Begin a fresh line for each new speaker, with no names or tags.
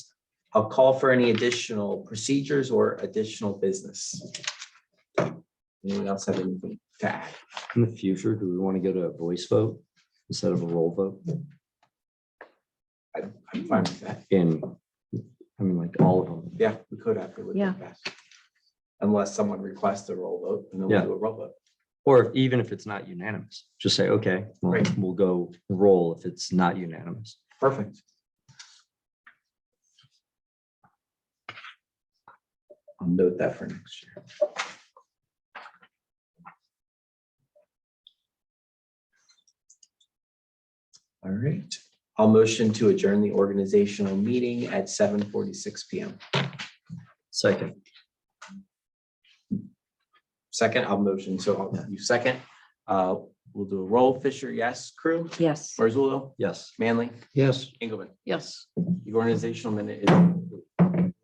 I'll call for any additional procedures or additional business. Anyone else have anything to add?
In the future, do we want to go to a voice vote instead of a roll vote?
I'm fine with that.
And, I mean, like all of them.
Yeah, we could after. we
Yeah.
Unless someone requests a roll vote and then
Yeah.
we'll do a roll vote.
Or if- even if it's not unanimous, just say, okay, well,
Right.
we'll go roll if it's not unanimous.
Perfect. I'll note that for next year. All right, I'll motion to adjourn the organizational meeting at seven forty-six PM.
Second,
Second, I'll motion, so I'll- you second. Uh, We'll do a roll. Fisher, yes. Crew,
Yes.
Marzullo,
yes.
Manley,
Yes.
Engelman.
Yes.
The organizational minute is